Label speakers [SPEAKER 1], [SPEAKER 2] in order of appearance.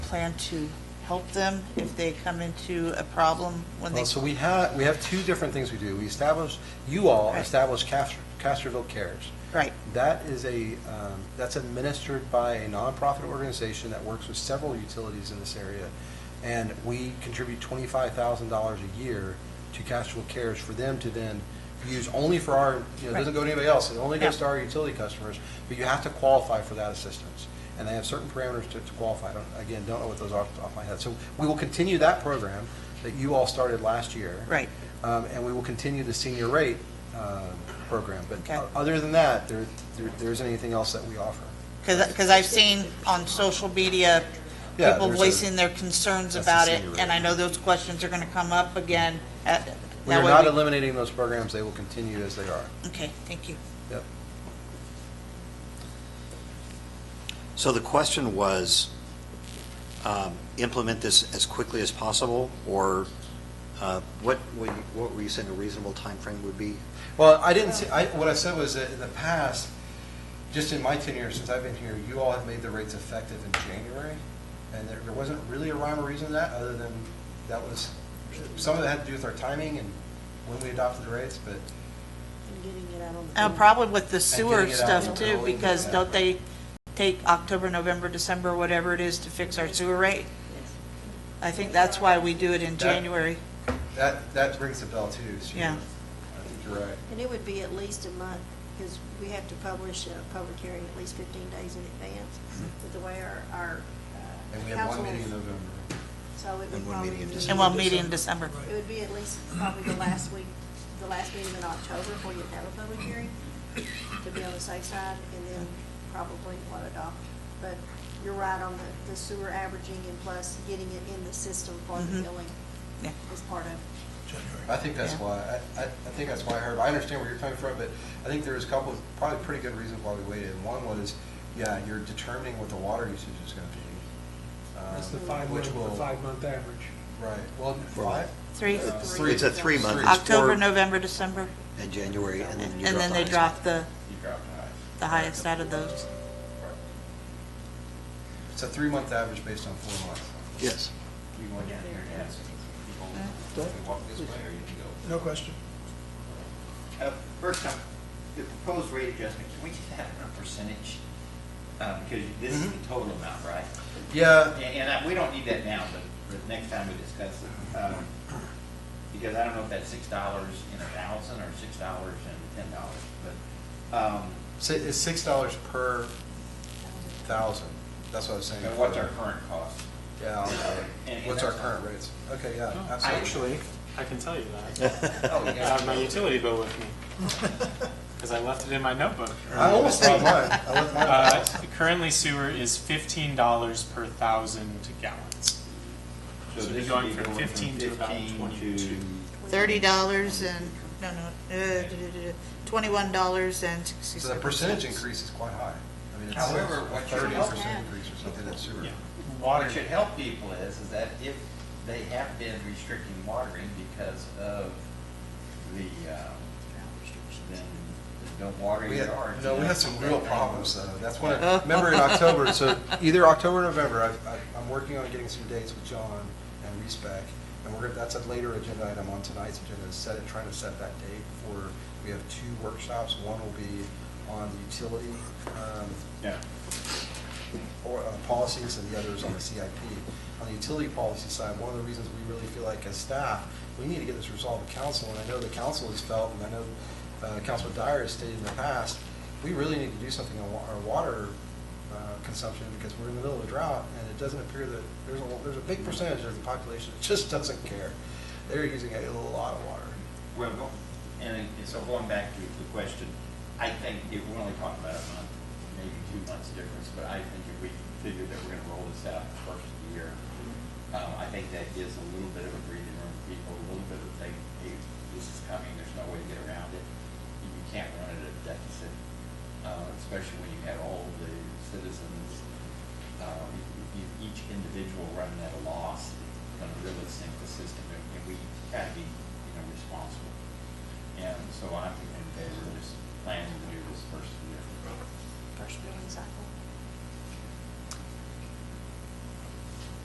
[SPEAKER 1] plan to help them if they come into a problem when they,
[SPEAKER 2] Well, so we have, we have two different things we do. We establish, you all
[SPEAKER 1] Right.
[SPEAKER 2] establish Cas- Casterville Cares.
[SPEAKER 1] right,
[SPEAKER 2] That is a, um, that's administered by a nonprofit organization that works with several utilities in this area. And we contribute twenty-five thousand dollars a year to Casterville Cares for them to then use only for our, you know, it doesn't
[SPEAKER 1] Right.
[SPEAKER 2] go to anybody else. It only goes
[SPEAKER 1] Yeah.
[SPEAKER 2] to our utility customers, but you have to qualify for that assistance. And they have certain parameters to to qualify. I don't, again, don't know what those are off the top of my head. So we will continue that program that you all started last year.
[SPEAKER 1] right.
[SPEAKER 2] Um, And we will continue the senior rate uh, program. But
[SPEAKER 1] Okay.
[SPEAKER 2] o- other than that, there, there- there isn't anything else that we offer.
[SPEAKER 1] Because I've seen on social media,
[SPEAKER 2] Yeah,
[SPEAKER 1] people
[SPEAKER 2] there's a-
[SPEAKER 1] voicing their concerns
[SPEAKER 2] That's
[SPEAKER 1] about
[SPEAKER 2] the
[SPEAKER 1] it,
[SPEAKER 2] senior
[SPEAKER 1] and
[SPEAKER 2] rate.
[SPEAKER 1] I know those questions are going to come up again. at-
[SPEAKER 2] We
[SPEAKER 1] that
[SPEAKER 2] are
[SPEAKER 1] way
[SPEAKER 2] not
[SPEAKER 1] we-
[SPEAKER 2] eliminating those programs, they will continue as they are.
[SPEAKER 1] Okay, thank you.
[SPEAKER 2] Yep.
[SPEAKER 3] So the question was, um, implement this as quickly as possible, or uh, what, were you- what were you saying a reasonable time frame would be?
[SPEAKER 2] Well, I didn't, see- I, what I said was that in the past, just in my tenure since I've been here, you all have made the rates effective in January, and there there wasn't really a rhyme or reason to that, other than that was, some of it had to do with our timing and when we adopted the rates, but
[SPEAKER 1] Uh, Probably with the sewer
[SPEAKER 2] getting it out
[SPEAKER 1] stuff
[SPEAKER 2] in the
[SPEAKER 1] too,
[SPEAKER 2] building,
[SPEAKER 1] because
[SPEAKER 2] yeah.
[SPEAKER 1] don't they take October, November, December, whatever it is to fix our sewer rate? I think that's why we do it in
[SPEAKER 2] That-
[SPEAKER 1] January.
[SPEAKER 2] that, that rings a bell too, so.
[SPEAKER 1] Yeah.
[SPEAKER 2] I think you're right.
[SPEAKER 4] And it would be at least a month, because we have to publish a public hearing at least 15 days in advance
[SPEAKER 1] Mm-hmm.
[SPEAKER 4] with the way our, our uh,
[SPEAKER 2] And we have one
[SPEAKER 4] council
[SPEAKER 2] meeting in
[SPEAKER 4] is.
[SPEAKER 2] November.
[SPEAKER 4] So it would
[SPEAKER 3] And one
[SPEAKER 4] probably
[SPEAKER 3] meeting in
[SPEAKER 4] be-
[SPEAKER 3] December.
[SPEAKER 1] And we'll meet in December.
[SPEAKER 4] It would be at least probably the last week, the last meeting in October before you have a public hearing, to be on the safe side, and then probably what adopt. But you're right on the- the sewer averaging and plus getting it in the system for the
[SPEAKER 1] Mhm.
[SPEAKER 4] billing
[SPEAKER 1] Yeah.
[SPEAKER 4] is part of
[SPEAKER 2] I think that's
[SPEAKER 1] Yeah.
[SPEAKER 2] why, I, I I think that's why I heard, I understand where you're coming from, but I think there was a couple, of probably pretty good reasons why we waited. And One was, yeah, you're determining what the water usage is gonna be. um,
[SPEAKER 5] That's the five
[SPEAKER 2] which
[SPEAKER 5] month,
[SPEAKER 2] will-
[SPEAKER 5] the five month average.
[SPEAKER 2] Right, well,
[SPEAKER 3] Four
[SPEAKER 2] five?
[SPEAKER 1] Three,
[SPEAKER 2] Uh,
[SPEAKER 3] It's a three-month. it's
[SPEAKER 1] October,
[SPEAKER 3] four
[SPEAKER 1] November, December,
[SPEAKER 3] In January, and then you
[SPEAKER 1] and then they
[SPEAKER 3] drop
[SPEAKER 1] drop the,
[SPEAKER 2] You got five.
[SPEAKER 1] the highest out of those.
[SPEAKER 2] Right. It's a three-month average based on four months.
[SPEAKER 3] the highest. Yes.
[SPEAKER 2] You want to- you want to walk this way or you can go?
[SPEAKER 5] No question.
[SPEAKER 6] Uh, First time, the proposed rate adjustment, can we just have it in a percentage? Uh, Because this is the total amount, right?
[SPEAKER 2] Yeah,
[SPEAKER 6] And and I- we don't need that now, but for the next time we discuss it. um, Because I don't know if that's six dollars and a thousand or six dollars and ten dollars, but, um,
[SPEAKER 2] si- it's six dollars per thousand, that's what I was saying.
[SPEAKER 6] but what's our current cost?
[SPEAKER 2] Yeah, I'll-
[SPEAKER 6] And- and
[SPEAKER 2] what's our
[SPEAKER 6] that's-
[SPEAKER 2] current rates? Okay, yeah,
[SPEAKER 5] Oh.
[SPEAKER 2] absolutely.
[SPEAKER 7] Actually, I can tell you that.
[SPEAKER 6] Oh,
[SPEAKER 7] I
[SPEAKER 6] you got
[SPEAKER 7] have my
[SPEAKER 6] it.
[SPEAKER 7] utility bill with me, because I left it in my notebook.
[SPEAKER 2] I almost brought mine. I left mine.
[SPEAKER 7] Uh, Currently sewer is fifteen dollars per thousand gallons.
[SPEAKER 6] So
[SPEAKER 7] So
[SPEAKER 6] this
[SPEAKER 7] we're
[SPEAKER 6] would
[SPEAKER 7] going
[SPEAKER 6] be
[SPEAKER 7] from 15 to about
[SPEAKER 6] 15
[SPEAKER 7] 22.
[SPEAKER 1] Thirty dollars and, no, no, uh, twenty-one dollars and sixty-six.
[SPEAKER 2] So the percentage increase is quite high. I mean, it's
[SPEAKER 6] However,
[SPEAKER 2] a
[SPEAKER 6] what should
[SPEAKER 2] thirty
[SPEAKER 6] help
[SPEAKER 2] percent
[SPEAKER 4] that-
[SPEAKER 2] increase or something in sewer.
[SPEAKER 7] Yeah.
[SPEAKER 6] What
[SPEAKER 7] Water,
[SPEAKER 6] it should help people is, is that if they have been restricting watering because of the, um, then don't water
[SPEAKER 2] We
[SPEAKER 6] your
[SPEAKER 2] had,
[SPEAKER 6] yard.
[SPEAKER 2] no, we had some real problems though. That's when, I
[SPEAKER 1] Yeah.
[SPEAKER 2] remember in October, so either October or November, I've- I, I'm working on getting some dates with John and respec And we're, gonna- that's a later agenda item on tonight's agenda, is set, trying to set that date for, we have two workshops. One will be on the utility, um,
[SPEAKER 6] Yeah.
[SPEAKER 2] or, uh, policies and the others on the CIP. On the utility policy side, one of the reasons we really feel like as staff, we need to get this resolved with council, and I know the council has felt, and I know uh, Councilman Dyer has stated in the past, we really need to do something on wa- our water uh, consumption because we're in the middle of a drought, and it doesn't appear that, there's a, there's a big percentage of the population that just doesn't care. They're using a lot of water.
[SPEAKER 6] Well, go- and it- and so going back to the question, I think if we're only talking about a month, maybe two months difference, but I think if we figure that we're gonna roll this out the first of the year, um, I think that gives a little bit of a breathing room for people, a little bit of, they, hey, this is coming, there's no way to get around it. You can't run it at a deficit, uh, especially when you have all the citizens, um, e- e- each individual running at a loss, it's gonna really sink the system, and and we gotta be, you know, responsible. And so I'm in favor of just planning to do this first year.
[SPEAKER 4] first billing cycle.